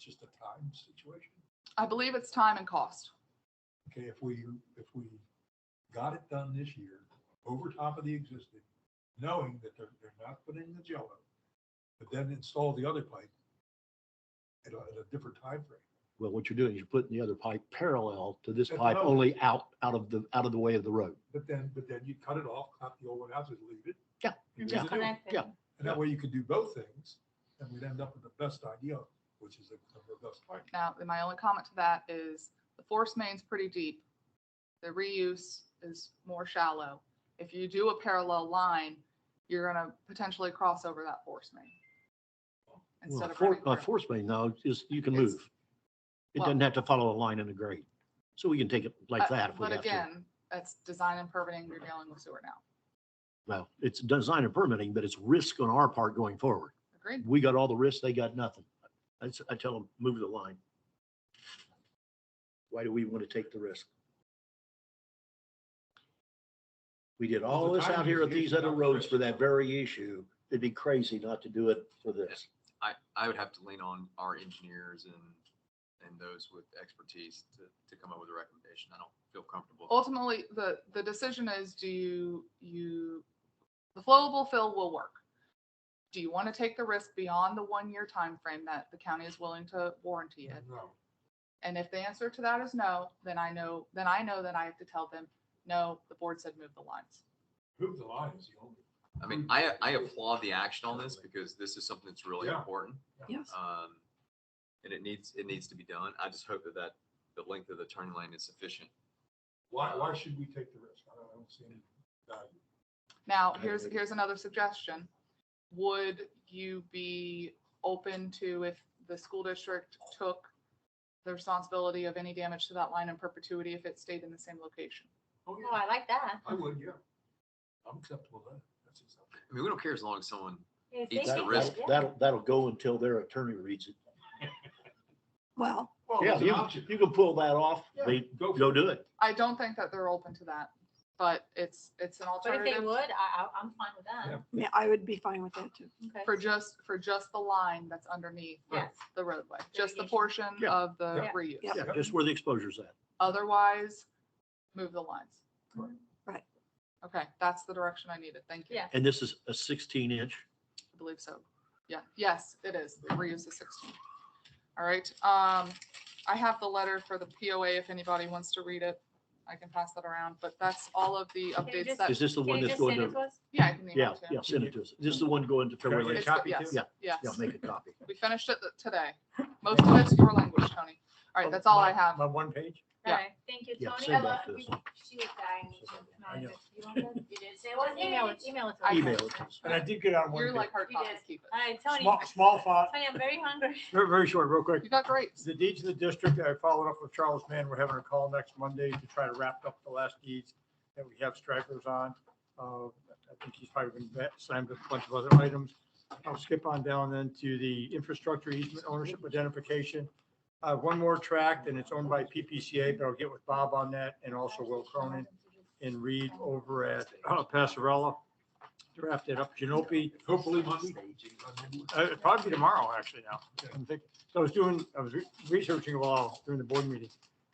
just a time situation? I believe it's time and cost. Okay, if we, if we got it done this year, over top of the existing, knowing that they're, they're not putting the jello, but then install the other pipe at a, at a different timeframe. Well, what you're doing is you're putting the other pipe parallel to this At the pipe, road. only out, out of the, out of the way of the road. But then, but then you cut it off, cut the old one out, just leave it. Yeah, and yeah. leave the new one. Yeah. And that way you could do both things, and we'd end up with the best idea, which is a a robust pipe. Now, my only comment to that is the force main's pretty deep. The reuse is more shallow. If you do a parallel line, you're gonna potentially cross over that force main. Well, Instead of for- running By through. force main now is you can It's- move. It well- doesn't have to follow a line in a grade. So we can take it like Uh, that if we But have to. again, that's design and permitting, you're dealing with sewer now. Well, it's design and permitting, but it's risk on our part going forward. Agreed? We got all the risk, they got nothing. That's, I tell them, move the line. Why do we want to take the risk? We did Well, all the this out timing here is at the these issue, other not the roads risk. for that very issue. It'd be crazy not to do it for this. I, I would have to lean on our engineers and, and those with expertise to, to come up with a recommendation. I don't feel comfortable. Ultimately, the, the decision is, do you, you, the flowable fill will work. Do you want to take the risk beyond the one-year time frame that the county is willing to warranty it? Mm-hmm. No, And if the answer to that is no, then I know, then I know that I have to tell them, no, the board said move the lines. move the line is the only. I mean, I, I applaud the action on this because this is something that's really Yeah. important. Yes. Um, and it needs, it needs to be done. I just hope that that, the length of the turning lane is sufficient. Why, why should we take the risk? I don't, I don't see any value. Now, I here's, agree. here's another suggestion. Would you be open to if the school district took the responsibility of any damage to that line in perpetuity if it stayed in the same location? Oh, Oh, I like that. I would, yeah. I'm acceptable with that. That's acceptable. I mean, we don't care as long as someone, If It's the they think That- it- risk. yeah. That'll, that'll- that'll go until their attorney reads it. Well, Well, Yeah, Oh, it's an you, option. you can pull that off, Yeah, they, go for go it. do it. I don't think that they're open to that, but it's, it's an but if they alternative would, I, I- I'm fine with that. Yeah, I would be fine with that too. Okay. for just, for just the line that's underneath Yes. the roadway, just the Irrigation. portion Yeah. of the Yeah. reuse. Yeah. Yeah, just where the exposure's at. Otherwise, move the lines. Right. Right. Okay, that's the direction I needed. Thank you. Yeah. And this is a sixteen inch. I believe so. Yeah, yes, it is. The Reuse is sixteen. All right, um, I have the letter for the POA if anybody wants to read it. I can pass that around, but that's all of the Can you updates just- that, Is this the Can one you that's just going send it to? to us? yeah, I can Yeah, email it to yeah, you. send it to us. This is the one going to February. It's- It's- copy yes, too? Yes, Yeah, make a copy. we finished it today. Most of it's your language, Tony. All right, that's all I have. My one page? Yeah. Alright, Thank you, Yeah, Tony. send I that love- to us. you- She was dying. You want I know. that? You didn't say, well, email it, email it. to us. I- Email it to us. And I did get on You're one, like hard You copies, did. keep it. Alright, bit. Tony, small, small font, Tony, I'm very hungry. very, very short, real quick. You got great. The deeds of the district, I followed up with Charles Mann. We're having a call next Monday to try to wrap up the last deeds that we have strikers on. Uh, I think he's probably been vet- signed with a bunch of other items. I'll skip on down then to the infrastructure easement ownership identification. Uh, one more tract and it's owned by PPCA, but I'll get with Bob on that and also Will Cronin and Reed over at uh, Passarella. Drafted up Genope. Hopefully Monday. Uh, it'll probably be tomorrow, actually, now. Okay. I'm thinking- So I was doing, I was re- researching while during the board meeting.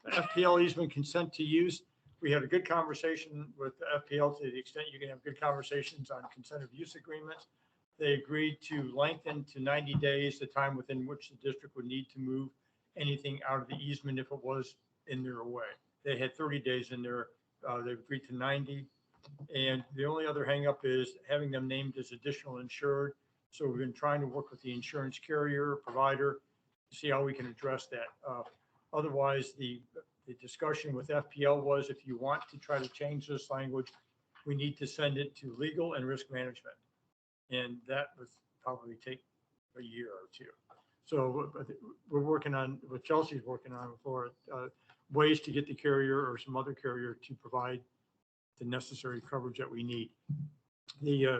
The FPL easement consent to use, we had a good conversation with the FPL to the extent you can have good conversations on consent of use agreements. They agreed to lengthen to ninety days the time within which the district would need to move anything out of the easement if it was in their way. They had thirty days in there, uh, they agreed to ninety. And the only other hangup is having them named as additional insured. So we've been trying to work with the insurance carrier provider, to see how we can address that. Uh, Otherwise, the, the discussion with FPL was if you want to try to change this language, we need to send it to legal and risk management. And that would probably take a year or two. So but we're working on, what Chelsea's working on for uh, ways to get the carrier or some other carrier to provide the necessary coverage that we need. The, uh,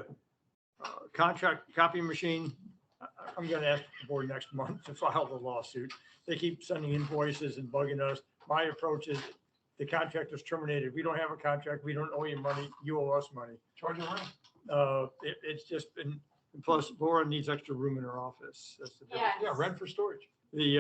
uh, contract copying machine, I- I'm going to ask the board next month to file the lawsuit. They keep sending invoices and bugging us. My approach is the contract is terminated. We don't have a contract. We don't owe you money. You owe us money. Charge your rent. Uh, it, it's just been, and plus Laura needs extra room in her office. That's the, Yeah. Yeah, rent for storage. the,